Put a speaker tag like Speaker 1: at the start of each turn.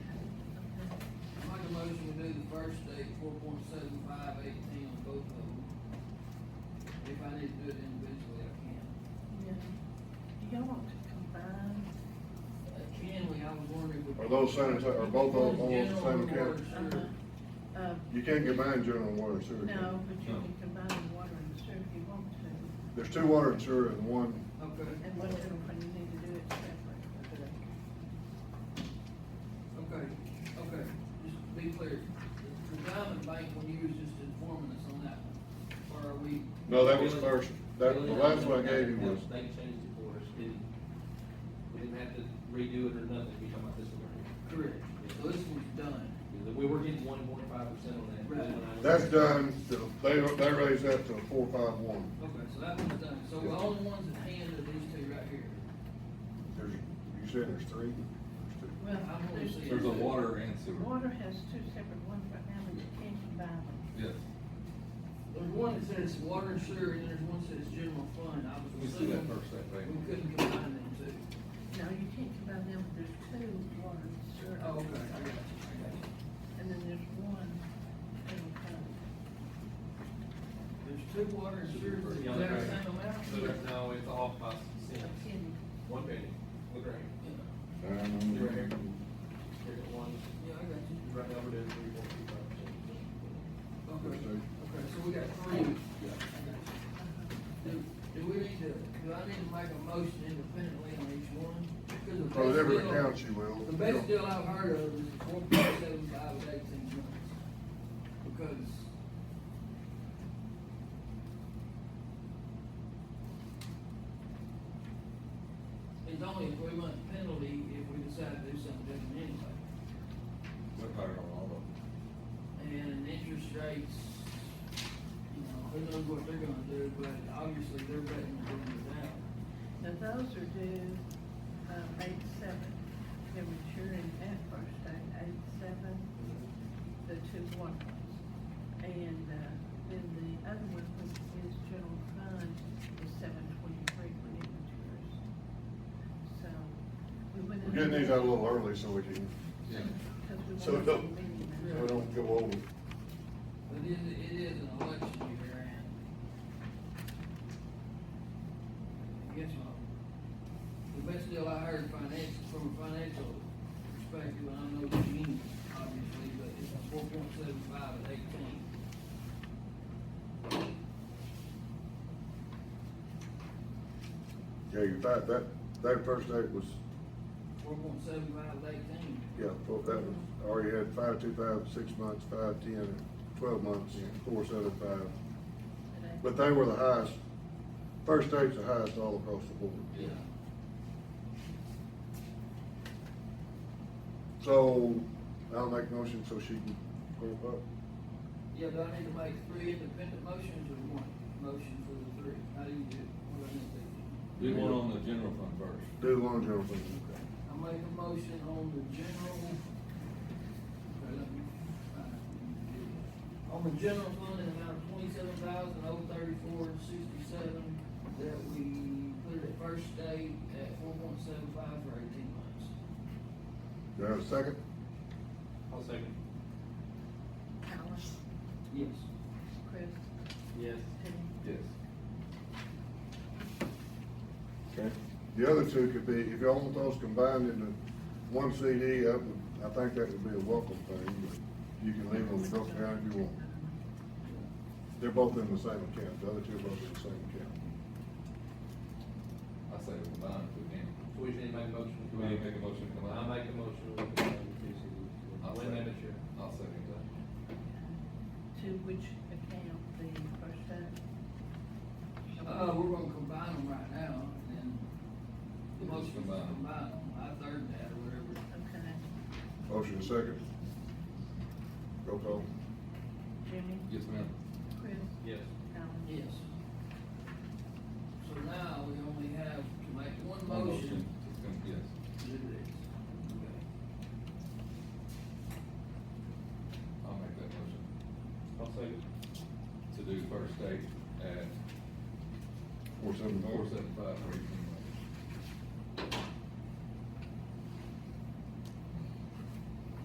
Speaker 1: motion to do the first day, four point seven five eighteen on both of them. If I need to do it individually, I can.
Speaker 2: Yeah. Do y'all want to combine?
Speaker 1: Uh, Can we, I was wondering. if we-
Speaker 3: Are those sanitary- are both of them on the
Speaker 1: General
Speaker 3: same
Speaker 1: and
Speaker 3: account?
Speaker 1: water, sure.
Speaker 2: Uh-huh. Uh,
Speaker 3: You can't combine general and water and sewer. can you?
Speaker 2: no, but you can combine the water and sewer if you want to,
Speaker 3: There's two water and sewer and one,
Speaker 1: Uh-huh. Okay,
Speaker 2: and whatever, when you need to do it separate.
Speaker 1: okay, okay, just to be clear, the Diamond Bank, when you was just informing us on that, one, or are we?
Speaker 3: no, that was first, that, the last one I gave you was,
Speaker 4: They changed it for us, didn't, we didn't have to redo it or nothing, we talking about this one right here.
Speaker 1: Correct, so this one's done.
Speaker 4: Yeah, We were getting one point five percent on that.
Speaker 1: Right.
Speaker 3: that's done, to- they, they raised that to four five one.
Speaker 1: Okay, so that one's done, so the only ones at hand are these two right here.
Speaker 3: There's, you said there's three? There's two.
Speaker 2: Well,
Speaker 1: I'm gonna
Speaker 2: there's.
Speaker 1: say-
Speaker 5: There's a water and sewer.
Speaker 2: Water has two separate ones right now, but you can combine them.
Speaker 5: Yes.
Speaker 1: There's one that says water and sewer, and there's one that says general fund, I
Speaker 5: We
Speaker 1: was
Speaker 5: see that
Speaker 1: assuming
Speaker 5: first, that
Speaker 1: we
Speaker 5: thing.
Speaker 1: couldn't combine them two.
Speaker 2: No, you can't combine them, but there's two water and sewer.
Speaker 1: Oh, okay, I got you, I got you.
Speaker 2: And then there's one general fund.
Speaker 1: There's two water and sewer, is that
Speaker 4: Yeah,
Speaker 1: the
Speaker 4: okay.
Speaker 1: same amount?
Speaker 4: So there's no, it's off by cents,
Speaker 2: Can-
Speaker 4: one penny, look right here,
Speaker 3: Um,
Speaker 4: here's the one,
Speaker 1: Yeah, I got you.
Speaker 4: right now we're doing three point two five
Speaker 1: Okay,
Speaker 3: There's
Speaker 4: percent.
Speaker 3: two.
Speaker 1: okay, so we got three.
Speaker 4: Yeah.
Speaker 1: I got you. Do, do we need to, do I need to make a motion independently on each one? Because the
Speaker 3: For whatever
Speaker 1: best deal-
Speaker 3: accounts you will.
Speaker 1: The best deal I've heard of is four point seven five with eighteen months. Because. It's only a three month penalty if we decide to do something different anyway.
Speaker 5: We're higher on all of
Speaker 1: And interest rates, you know, who knows what they're gonna do, but obviously they're betting to bring it down.
Speaker 2: Now, those are due, um, eight seven, they're maturing at first date, eight seven, the two one ones. And, uh, then the other one, which is general fund, is seven twenty-three when it matures. So, we went.
Speaker 3: We're getting these out a little early so we can,
Speaker 5: them.
Speaker 2: Cause
Speaker 3: So
Speaker 2: we want
Speaker 3: it
Speaker 2: to
Speaker 3: don't-
Speaker 2: be meeting.
Speaker 3: we don't go over.
Speaker 1: But it, it is an election year and I guess my, the best deal I heard financial, from a financial perspective, and I'm no genius, obviously, but it's a four point seven five at eighteen.
Speaker 3: Yeah, you fact, that, that first date was,
Speaker 1: Four point seven five at eighteen.
Speaker 3: yeah, well, that was, already had five, two, five, six months, five, ten, twelve months, four, seven, five.
Speaker 2: Today.
Speaker 3: But they were the highest, first date's the highest all across the board.
Speaker 1: Yeah.
Speaker 3: So, I'll make a motion so she can go up.
Speaker 1: Yeah, do I need to make three independent motions or one motion for the three? How do you do, it? what do I need to do?
Speaker 5: Do one on the general fund first.
Speaker 3: Do the long jump.
Speaker 1: I make a motion on the general. Okay, let me find it. On the general fund in amount of twenty-seven thousand oh thirty-four sixty-seven, that we put it at first state at four point seven five for eighteen months.
Speaker 3: Do I have a second?
Speaker 4: I'll second.
Speaker 2: Alan,
Speaker 1: Yes.
Speaker 2: Chris,
Speaker 4: Yes.
Speaker 2: Tim.
Speaker 5: Yes.
Speaker 3: Okay. The other two could be, if y'all want those combined into one CD, I would, I think that would be a welcome thing, but you can leave them broken down if you want. They're both in the same account, the other two are both in the same account.
Speaker 5: I say we combine if we can.
Speaker 4: So we just need to make a motion. to
Speaker 5: We
Speaker 4: combine.
Speaker 5: need to make a motion to combine.
Speaker 4: I'll make a motion. to combine the two cities.
Speaker 5: I'll
Speaker 4: When that
Speaker 5: second.
Speaker 4: mature.
Speaker 5: I'll second that.
Speaker 2: To which account the first time?
Speaker 1: Uh, we're gonna combine them right now, and then the
Speaker 5: We'll just
Speaker 1: motion to
Speaker 5: combine 'em.
Speaker 1: combine them, I third that or whatever.
Speaker 2: Okay,
Speaker 3: Motion second. Roll call.
Speaker 2: Jimmy,
Speaker 5: Yes, ma'am.
Speaker 2: Chris,
Speaker 4: Yes.
Speaker 2: Alan.
Speaker 1: Yes. So now we only have to make one
Speaker 5: One
Speaker 1: motion
Speaker 5: It's gonna- Yes.
Speaker 1: to do this. Okay.
Speaker 5: I'll make that motion
Speaker 4: I'll second.
Speaker 5: to do first date at
Speaker 3: Four seven
Speaker 5: four
Speaker 3: four.
Speaker 5: seven five for eighteen